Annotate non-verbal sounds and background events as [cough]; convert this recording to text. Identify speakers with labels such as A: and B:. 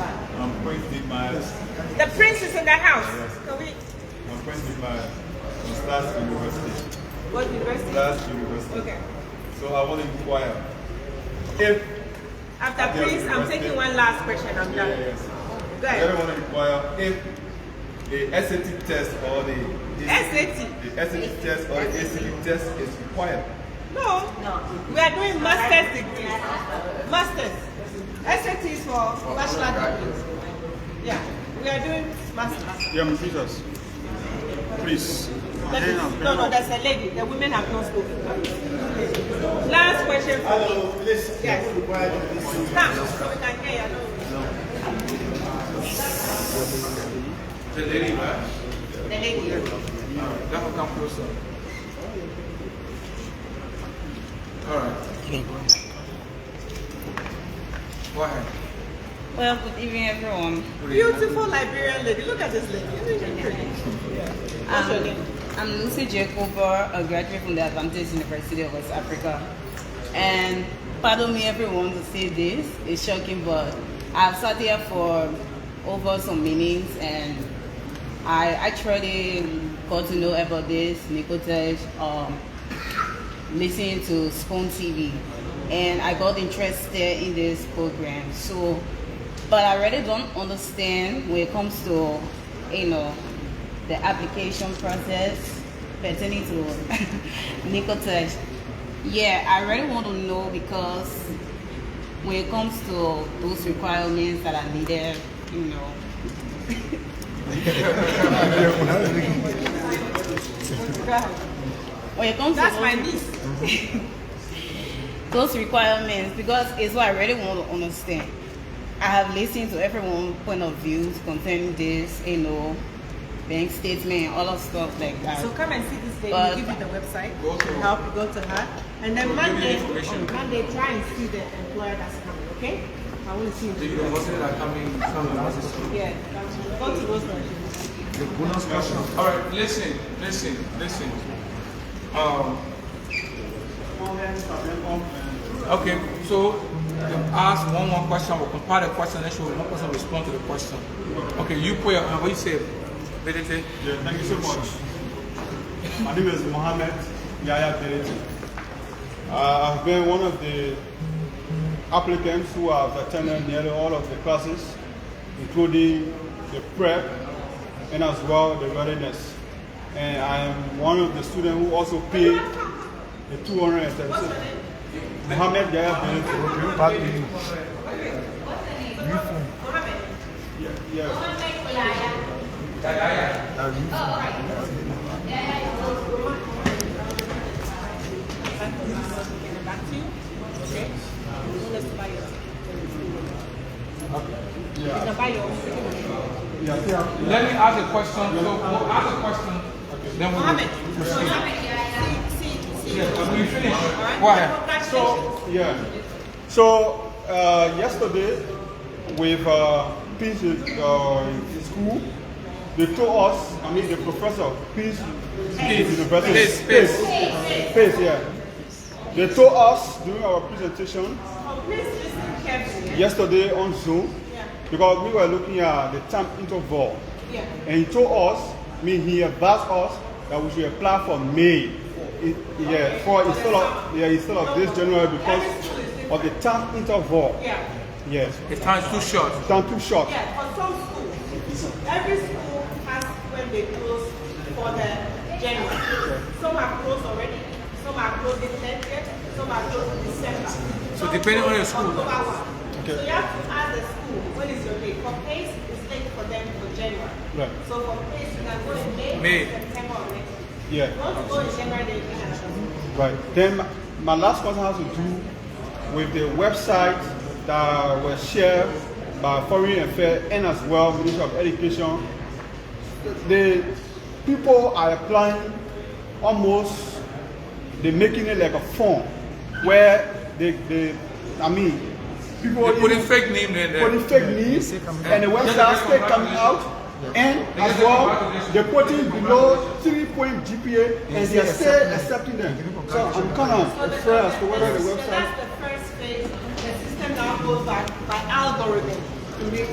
A: I'm Quincy Myers.
B: The prince is in that house. Can we?
A: I'm Quincy Myers from Stas University.
B: What university?
A: Stas University.
B: Okay.
A: So I want to inquire if
B: After
A: Yeah,
B: prince, I'm
A: university.
B: taking one last question. I'm done.
A: yes,
B: Go
A: I
B: ahead.
A: don't want to inquire if the SAT test or the the-
B: SAT.
A: the SAT test or the ACT test is required.
B: No. We are doing master's degree. Masters. SAT is for bachelor degrees. Yeah. We are doing masters.
C: Yeah, Mr. Jesus. Please.
B: That is- No, no, that's a lady. The women have not spoken. Last question for me.
A: Hello, please.
B: Yes. Come, so we can hear you. The lady, The lady.
D: That will come closer. All right. Go ahead.
E: Well, good evening, everyone.
B: Beautiful Liberian lady. Look at this lady. Isn't she pretty? What's your name?
E: Um, I'm Lucy Jacoba, a graduate from the Advantage University of West Africa. And pardon me, everyone, to say this. It's shocking, but I've sat here for over some meetings and I actually got to know about this Nicotech um, listening to Spoon TV, and I got interested in this program. So, but I really don't understand when it comes to, you know, the application process pertaining to [laughs] Nicotech. Yeah, I really want to know because when it comes to those requirements that are needed, you know. when it comes
B: That's
E: to
B: my
E: those-
B: niece.
E: those requirements because it's what I really want to understand. I have listened to everyone's point of views concerning this, you know, bank statement, all of stuff like that.
B: So come and see this lady.
E: But-
B: we'll give you the website.
D: Go to-
B: help you go to her. And then
D: We'll give you
B: Monday,
D: information.
B: on Monday, try and see the employer that's coming, okay? I want to see
D: The
B: you.
D: university that coming from the
B: Yeah, go to those ones.
D: All right, listen, listen, listen. Um, okay, so you ask one more question, we'll compile the question, then she will one person respond to the question. Okay, you put your, uh, what you say? Benedict?
A: Yeah, thank you so much. My name is Mohammed Yaya Bereti. Uh, I've been one of the applicants who have attended nearly all of the classes, including the prep and as well the readiness. And I am one of the students who also paid the 237. Mohammed Yaya Bereti. Yeah, yeah.
B: Back to you. Okay? Let's buy your.
A: Yeah.
B: You can buy your own.
A: Yeah, I think
D: Let me ask a question, so we'll ask a question, then we'll.
B: Mohammed, so Mohammed, see, see, see.
D: Yeah, when you finish,
B: Alright?
D: go ahead.
B: Congratulations.
A: Yeah. So uh, yesterday, with uh, Peace uh, School, they told us, I mean, the professor, Peace,
D: Peace.
A: University,
D: Peace,
A: Peace, Peace, yeah. They told us during our presentation
B: Oh, please listen carefully.
A: yesterday on Zoom
B: Yeah.
A: because we were looking at the time interval,
B: Yeah.
A: and he told us, I mean, he advised us that we should apply for May. It, yeah, for instead of yeah instead of this January because of the time interval.
B: Yeah.
A: Yes.
D: The time is too short.
A: Time too short.
B: Yeah, for some schools, every school has when they close for the January. Some are closed already, some are closed in 30th, some are closed in December. So
D: depending on your school.
B: Okay. So you have to ask the school, when is your date? For PACE, it's late for them for January.
A: Right.
B: So for PACE, you can go in May,
D: May.
B: September or next.
A: Yeah.
B: If you want to go in January, then you can have a-
A: Right. Then my- my last question has to do with the website that was shared by Foreign Affairs and as well Ministry of Education. The people are applying almost they're making it like a form where they, they I mean people
D: They put in
A: even-
D: fake name there.
A: putting
D: there.
A: fake news and the
D: Yeah.
A: website still coming out. And
D: Yeah.
A: as well, they're putting below three point GPA and they're still accepting them. So I'm kind
B: So
A: of
B: the-
A: afraid as to whether the
B: so
A: website.
B: That's the first phase, the system now goes by, by algorithm to make